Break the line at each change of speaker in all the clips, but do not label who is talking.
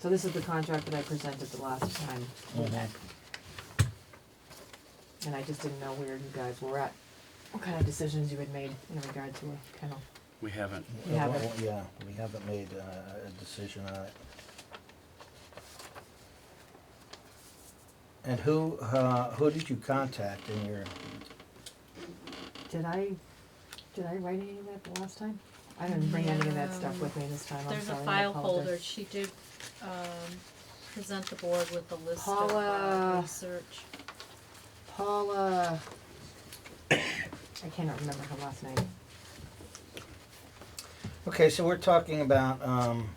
So this is the contract that I presented the last time.
Mm-hmm.
And I just didn't know where you guys were at, what kind of decisions you had made in regard to a kennel.
We haven't.
We haven't.
Well, Yeah, we haven't made uh, a decision on it. And who, uh, who did you contact in your,
Did I, did I write any of that the last time? I didn't bring any of that stuff with me this time, I'm
There's a
sorry, I
file folder,
apologize.
she did, um, present the board with a list of
Paula.
uh, research.
Paula, I cannot remember her last name.
okay, so we're talking about, um,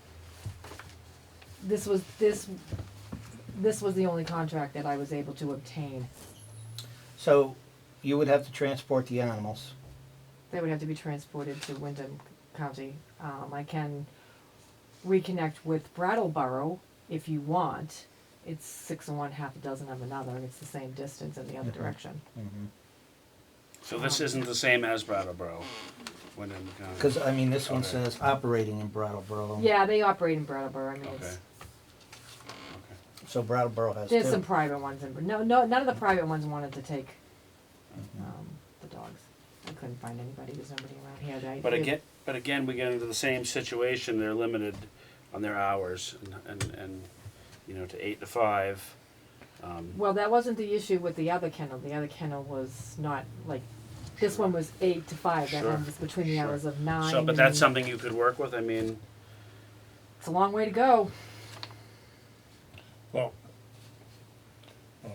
This was, this, this was the only contract that I was able to obtain.
so you would have to transport the animals.
They would have to be transported to Wyndham County. Um, I can reconnect with Brattleboro if you want. It's six and one, half a dozen of another. It's the same distance in the other
Mhm.
direction.
So this isn't the same as Brattleboro. When in the
Because, I mean, this one
Okay.
says operating in Brattleboro.
Yeah, they operate in Brattleboro. I mean, it's,
Okay.
So Brattleboro has
there's some
two.
private ones in. No, no, none of the private ones wanted to take um, the dogs. I couldn't find anybody. There's nobody around here. That
But
it-
again, but again, we get into the same situation. They're limited on their hours and, and, and you know, to eight to five. Um,
Well, that wasn't the issue with the other kennel. The other kennel was not like. This one was eight to five. That
Sure,
one was between the
sure.
hours of nine.
So, but that's
and-
something you could work with. I mean,
It's a long way to go.
Well, um,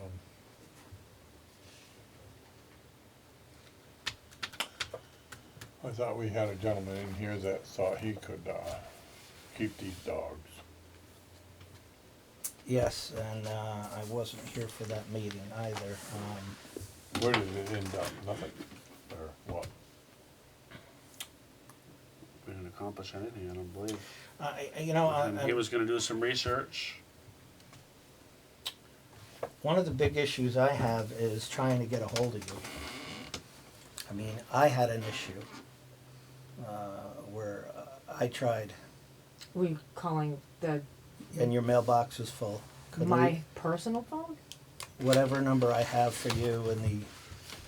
I thought we had a gentleman in here that thought he could, uh, keep these dogs.
Yes, and, uh, I wasn't here for that meeting either. Um,
Where did it end up? Nothing, or what?
we didn't accomplish anything, I don't believe.
I, I- you know, I,
And
I-
he was going to do some research.
One of the big issues I have is trying to get a hold of you. I mean, I had an issue uh, where uh, I tried,
We calling the
and your mailbox was full. Couldn't
my
re-
personal phone.
whatever number I have for you in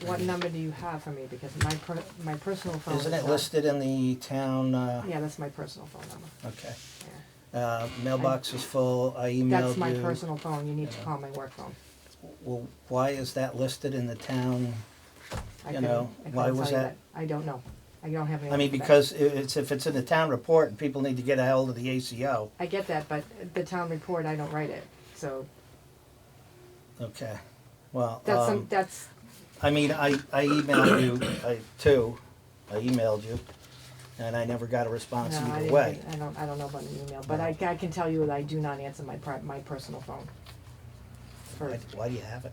What number do you have for me? Because my per- my personal
the
phone
Mm-hmm. isn't
is
it
not-
listed in the town? Uh,
Yeah, that's my personal phone number.
Okay.
Yeah.
Uh, mailbox was full. I emailed
That's my
you.
personal phone. You need to
Yeah.
call my work phone.
Well, why is that listed in the town?
I
You
couldn't-
know,
I couldn't
why was
tell you
that?
I don't know. I don't have any.
I mean, because i- it's if it's in the town report and people need to get a hold of the ACO.
I get that, but the town report, I don't write it. So
Okay. Well,
that's
um,
some. That's
I mean, I, I emailed you, I, too, I emailed you, and I never got a response
no. I,
either
didn't,
way.
I don't. I don't know about an email, but
No.
I, I can tell you that I do not answer my pri- my personal phone. For,
Why, why do you have it?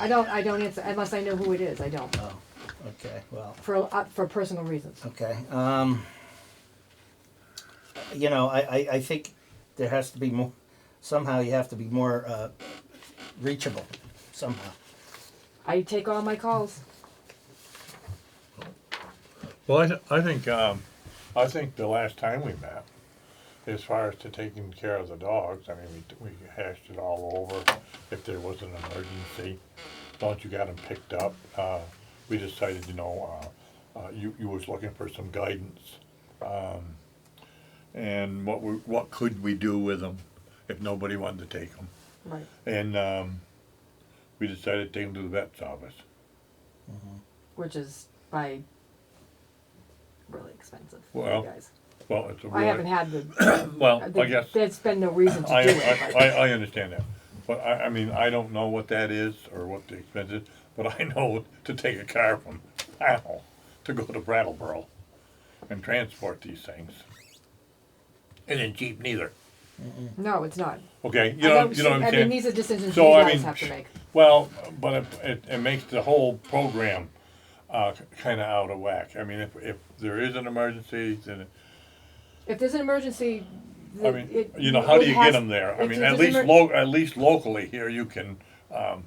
I don't. I don't answer unless I know who it is. I don't.
Oh, okay, well,
for uh, for personal reasons.
Oh.
okay, um, you know, I, I, I think there has to be more, somehow you have to be more, uh, reachable, somehow.
I take all my calls.
Well, I, th- I think, um, I think the last time we met, as far as to taking care of the dogs, I mean, we, t- we hashed it all over. If there was an emergency, don't you got them picked up? Uh, we decided, you know, uh, uh, you, you was looking for some guidance. Um, and what we, what could we do with them if nobody wanted to take them?
Right.
And, um, we decided to take them to the vet's office.
Which is by really expensive
Well,
for you guys.
Well, it's a
I haven't
really,
had the,
well,
the
I guess.
there's been no reason to
I,
do it.
I,
but-
I, I understand that, but I, I mean, I don't know what that is or what the expense is, but I know to take a car from Powell to go to Brattleboro and transport these things. It ain't cheap neither,
no, it's not.
okay,
I
you know,
don't
you
see-
know what
I
I'm
mean,
saying?
these are decisions
So,
you
I
guys
mean,
have to make.
Well, but it, it, it makes the whole program, uh, kinda out of whack, I mean, if, if there is an emergency, then it-
If there's an emergency,
I
the-
mean,
it-
you know, how
it
do you get
has-
them there? I
if
mean,
there's
at
an
least
emer-
lo- at least locally here, you can, um,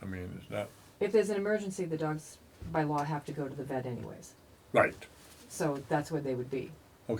I mean, it's not,
If there's an emergency, the dogs by law have to go to the vet anyways.
right,
So that's where they would be.